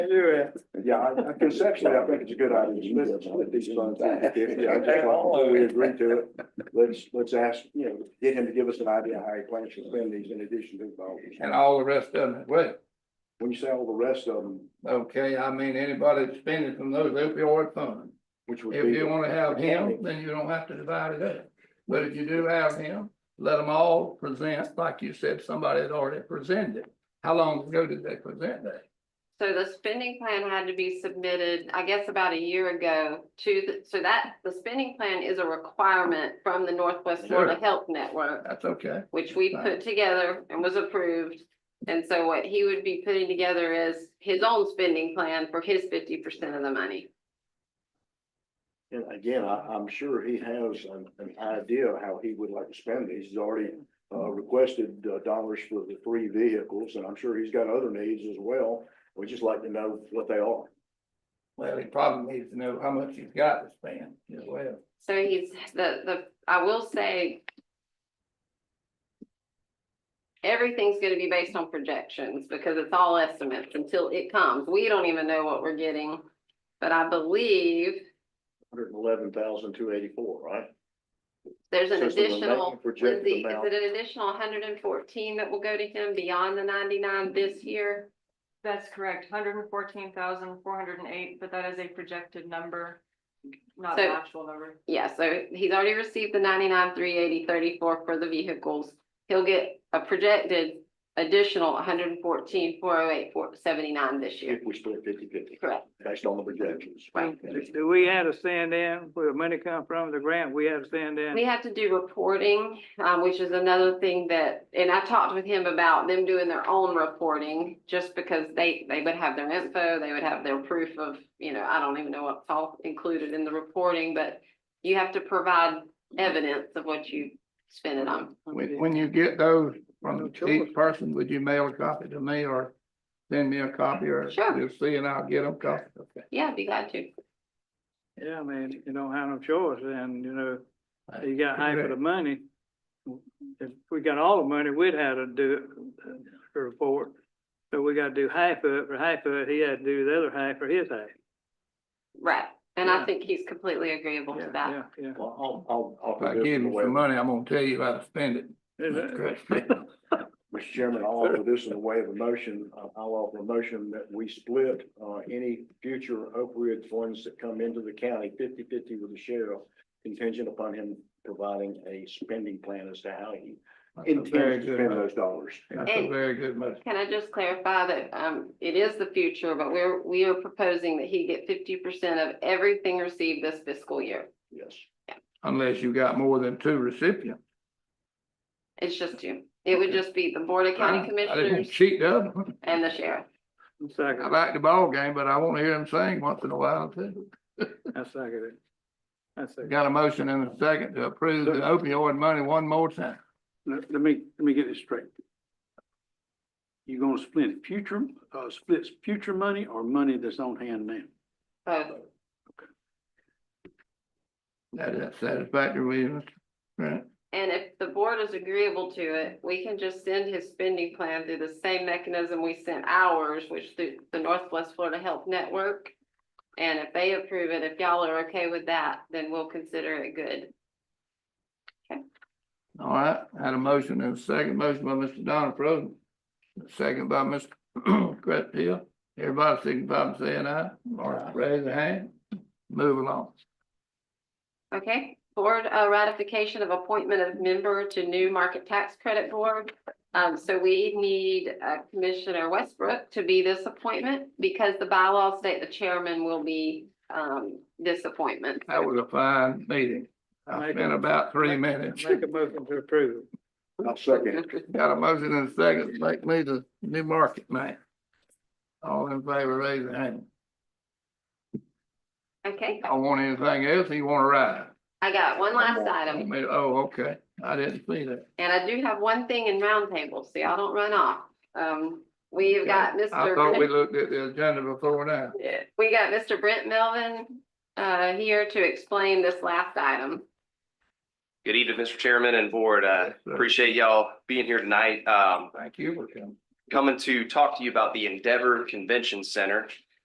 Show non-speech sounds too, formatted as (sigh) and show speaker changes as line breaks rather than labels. Do
Yeah, I- I- conceptually, I think it's a good idea, let's split these funds. If, yeah, I think like, we agree to it, let's, let's ask, you know, get him to give us an idea how he plans to spend these in addition to the.
and all the rest of them, well,
When you say all the rest of them,
okay, I mean, anybody that's spending from those opioid funds.
which would be.
If you wanna have him, then you don't have to divide it up, but if you do have him, let them all present, like you said, somebody had already presented. How long ago did they present that?
So the spending plan had to be submitted, I guess, about a year ago to, the- so that, the spending plan is a requirement from the Northwest Florida
Sure.
Health Network,
That's okay,
which we
Right.
put together and was approved. And so what he would be putting together is his own spending plan for his fifty percent of the money.
And again, I, I'm sure he has an, an idea of how he would like to spend these. He's already, uh, requested uh, dollars for the three vehicles, and I'm sure he's got other needs as well. We'd just like to know what they are.
well, he probably needs to know how much he's got to spend as well.
So he's, the, the, I will say. Everything's gonna be based on projections because it's all estimates until it comes. We don't even know what we're getting. But I believe
Hundred and eleven thousand, two eighty-four, right?
there's an
So it's the remaining
additional,
projected
Lindsay, is
amount.
it an additional hundred and fourteen that will go to him beyond the ninety-nine this year?
That's correct, hundred and fourteen thousand, four hundred and eight, but that is a projected number, not an
So-
actual number.
Yeah, so he's already received the ninety-nine, three eighty, thirty-four for the vehicles. He'll get a projected additional hundred and fourteen, four oh eight, four seventy-nine this year.
If we split fifty-fifty,
Correct.
based on the projections.
Right.
Do we have to send in where the money come from, the grant, we have to send
We
in?
have to do reporting, um, which is another thing that, and I talked with him about them doing their own reporting, just because they, they would have their info, they would have their proof of, you know, I don't even know what's all included in the reporting, but you have to provide evidence of what you spend it on.
When, when you get those from each person, would you mail a copy to me or send me a copy or
Sure.
you'll see and I'll get them copies? Okay.
Yeah, I'd be glad to.
Yeah, I mean, you don't have no choice and, you know, you got half of the money. If we got all the money, we'd have to do it, uh, the report. So we gotta do half of it, for half of it, he had to do the other half for his half.
Right, and I
Yeah.
think he's completely agreeable to that.
Yeah, yeah.
Well, I'll, I'll, I'll.
If I
put this
give
in the
you
way-
some money, I'm gonna tell you how to spend it. (laughs)
Mr. Chairman, I'll offer this in the way of a motion. Uh, I'll offer a motion that we split, uh, any future opioid funds that come into the county 50-50 with the sheriff contingent upon him providing a spending plan as to how he
That's a very
intends to
good
spend
motion.
those dollars.
That's a
And-
very good motion.
Can I just clarify that, um, it is the future, but we're, we are proposing that he get fifty percent of everything received this fiscal year.
Yes.
unless you got more than two recipients.
It's just you. It would just be the Board of County
I didn't
Commissioners
cheat the other one.
and the sheriff.
I
Second,
like the ball game, but I want to hear them sing once in a while too.
I second it. I second.
Got a motion and a second to approve the opioid money one more time.
Let, let me, let me get this straight. You are gonna split future, uh, splits future money or money that's on hand now?
So
That is satisfactory, reasons. Right,
And if the board is agreeable to it, we can just send his spending plan through the same mechanism we sent ours, which through the Northwest Florida Health Network. And if they approve it, if y'all are okay with that, then we'll consider it good.
all right, had a motion and a second, motion by Mr. Donald Roden. Second by Mr. (clears throat) Crutchfield, everybody signify by saying aye, or raise a hand, move along.
Okay, board uh, ratification of appointment of member to new market tax credit board. Um, so we need uh, Commissioner Westbrook to be this appointment because the bylaws state the chairman will be um, this appointment.
That was a fine meeting, I spent about three minutes.
Make a motion to approve.
I'll second. it.
Got a motion and a second, make me the new market man. All in favor, raise your hand.
Okay,
I want anything else, you wanna ride?
I got one last
I
item
mean, Oh, okay, I didn't see that.
and I do have one thing in roundtable, so y'all don't run off. Um, we've got Mr.
I thought we looked at the agenda before now.
Yeah, we got Mr. Brent Melvin uh, here to explain this last item.
Good evening, Mr. Chairman and Board. Uh,
Yes, sir.
Appreciate y'all being here tonight. Um,
Thank you for coming.
Coming to talk to you about the Endeavor Convention Center.